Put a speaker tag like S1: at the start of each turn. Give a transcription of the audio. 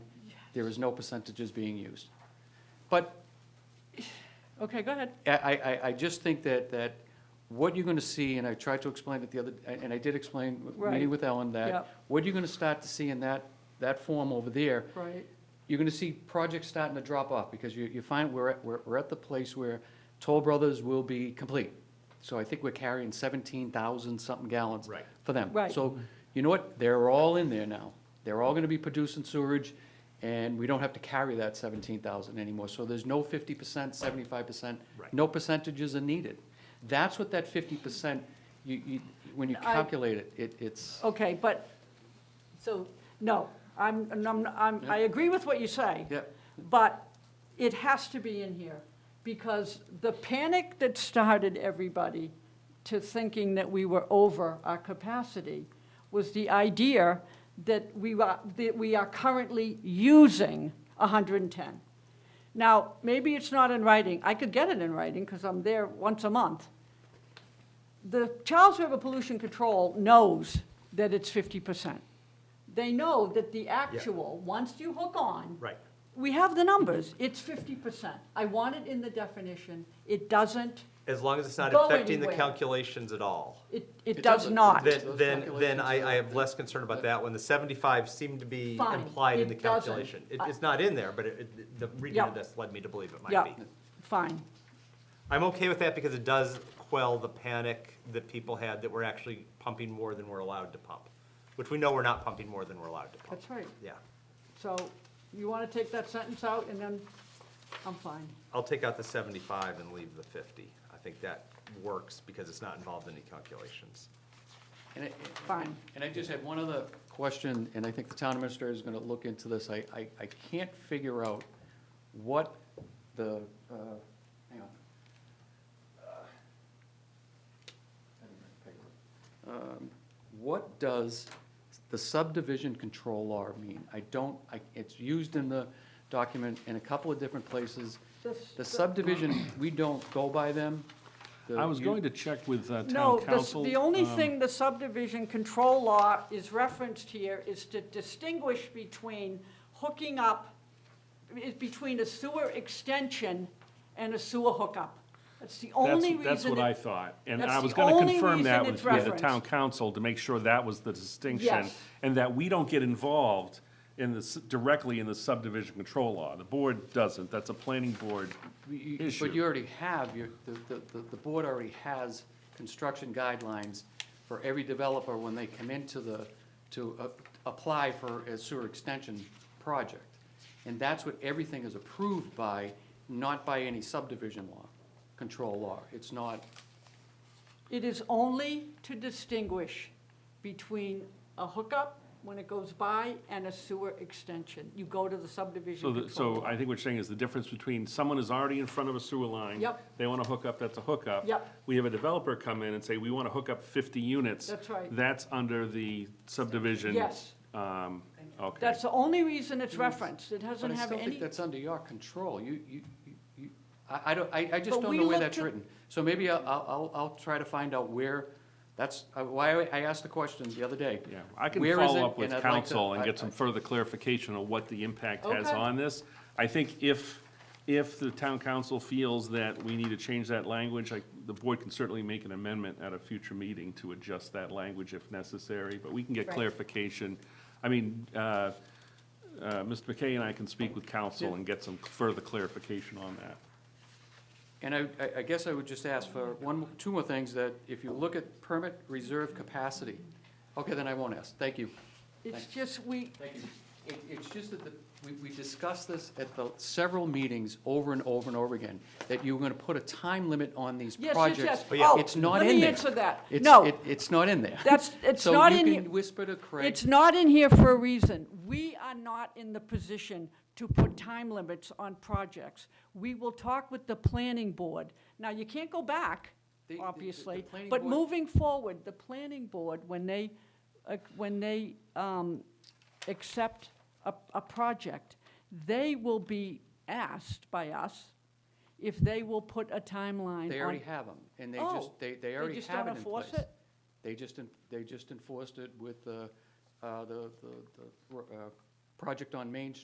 S1: There is no percentages being used. But
S2: Okay, go ahead.
S1: I, I, I just think that, that what you're gonna see, and I tried to explain it the other, and I did explain,
S2: Right.
S1: meeting with Ellen, that
S2: Yep.
S1: what you're gonna start to see in that, that form over there,
S2: Right,
S1: you're gonna see projects starting to drop off, because you, you find we're, at- we're, we're at the place where Toll Brothers will be complete. So I think we're carrying seventeen thousand something gallons.
S3: Right.
S1: For them.
S2: Right.
S1: So, you know what, they're all in there now, they're all gonna be producing sewerage, and we don't have to carry that seventeen thousand anymore, so there's no fifty percent, seventy-five percent.
S3: Right.
S1: No percentages are needed, that's what that fifty percent, you, you, when you
S2: I- Oh.
S1: calculate it, it, it's,
S2: okay, but, so, no, I'm, I'm, I'm, I agree with what you say.
S1: yeah,
S2: But it has to be in here, because the panic that started everybody to thinking that we were over our capacity was the idea that we are, that we are currently using 110. Now, maybe it's not in writing. I could get it in writing, because I'm there once a month. The Charles River Pollution Control knows that it's 50%. They know that the actual, once you hook on,
S3: Right.
S2: we have the numbers, it's fifty percent. I want it in the definition, it doesn't,
S3: As long as it's not
S2: Go
S3: affecting the
S2: anywhere.
S3: calculations at all.
S2: it, it
S1: It
S2: does
S1: doesn't.
S2: not.
S1: That-
S3: Then,
S1: Those
S3: then, then
S1: calculations
S3: I, I
S1: are-
S3: have less concern about that one. The seventy-five seemed to be
S2: Fine.
S3: implied in the
S2: It doesn't.
S3: calculation. It,
S2: I-
S3: it's not in there, but it, it- the reading
S2: Yeah.
S3: of this led me to believe it might
S2: Yeah.
S3: be.
S2: Fine,
S3: I'm okay with that because it does quell the panic that people had that we're actually pumping more than we're allowed to pump, which we know we're not pumping more than we're allowed to pump.
S2: that's right.
S3: Yeah,
S2: So you want to take that sentence out and then, I'm fine.
S3: I'll take out the seventy-five and leave the fifty. I think that works because it's not involved in any calculations.
S1: and it,
S2: Fine.
S1: And I just had one other question, and I think the town administrator is gonna look into this. I, I, I can't figure out what the, uh, hang on. Uh, Um, What does the subdivision control law mean? I don't, I, it's used in the document in a couple of different places.
S2: This-
S1: The subdivision, we don't go by them. The-
S4: I was
S1: you-
S4: going to check with uh,
S2: No,
S4: town
S2: the-
S4: council.
S2: the only
S4: um,
S2: thing the subdivision control law is referenced here is to distinguish between hooking up, is between a sewer extension and a sewer hookup. That's the
S4: that's-
S2: only reason.
S4: That's what I
S2: it-
S4: thought, and
S2: that's
S4: I was
S2: the
S4: gonna
S2: only
S4: confirm that
S2: reason
S4: with
S2: it's
S4: with the
S2: referenced.
S4: town council to make sure that was the distinction.
S2: Yes.
S4: And that we don't get involved in the, s- directly in the subdivision control law. The board doesn't, that's a planning board
S1: You- you-
S4: issue.
S1: But you already have, you, the, the- the, the board already has construction guidelines for every developer when they come into the, to uh, apply for a sewer extension project. And that's what everything is approved by, not by any subdivision law, control law. It's not,
S2: It is only to distinguish between a hookup when it goes by and a sewer extension. You go to the
S4: So,
S2: subdivision
S4: the-
S2: control.
S4: so I think what you're saying is the difference between someone is already in front of a sewer line.
S2: Yep.
S4: They wanna hook up, that's a hookup.
S2: Yep.
S4: We have a developer come in and say, we wanna hook up fifty units.
S2: That's right.
S4: That's under the subdivision.
S2: Yes.
S4: Um, okay.
S2: That's the only reason it's referenced. It
S1: but
S2: doesn't
S1: I
S2: have
S1: still
S2: any.
S1: think that's under your control. You, you, you- you, I, I don't, I, I just
S2: But
S1: don't
S2: we
S1: know where
S2: looked
S1: that's
S2: at-
S1: written. So maybe I'll, I'll, I'll- I'll try to find out where, that's uh, why I- I asked the question the other day.
S4: Yeah, I can
S1: Where is it?
S4: follow up
S1: And
S4: with
S1: I'd like to-
S4: council and
S1: I-
S4: get some
S1: I-
S4: further clarification on what the impact has
S2: Okay.
S4: on this. I think if, if the town council feels that we need to change that language, like, the board can certainly make an amendment at a future meeting to adjust that language if necessary, but we can get
S2: Right.
S4: clarification. I mean, uh, uh, Mr. McKay and I can speak with council and get some further clarification on that.
S1: And I, I- I guess I would just ask for one, two more things, that if you look at permit reserve capacity, okay, then I won't ask, thank you.
S2: It's just, we,
S1: Thank you. It, it's just that the, we, we discussed this at the several meetings over and over and over again, that you were gonna put a time limit on these
S2: yes, yes,
S1: projects.
S2: yes.
S3: Oh, yeah.
S2: Oh,
S1: It's not
S2: Let
S1: in
S2: me
S1: there.
S2: answer that.
S1: It's-
S2: No,
S1: it- It's not in there.
S2: That's- it's not in
S1: So
S2: here.
S1: you can whisper to Craig.
S2: it's not in here for a reason. We are not in the position to put time limits on projects. We will talk with the planning board. Now, you can't go back,
S1: The- the- the- the
S2: obviously,
S1: planning
S2: but
S1: board-
S2: moving forward, the planning board, when they, uh, when they um, accept a, a project, they will be asked by us if they will put a timeline on.
S1: They already have them, and they just,
S2: Oh,
S1: they,
S2: they
S1: they already
S2: just
S1: have
S2: don't
S1: it in
S2: enforce
S1: place.
S2: it?
S1: They just, en- they just enforced it with the, uh, the, the, the, uh, project on Main Street.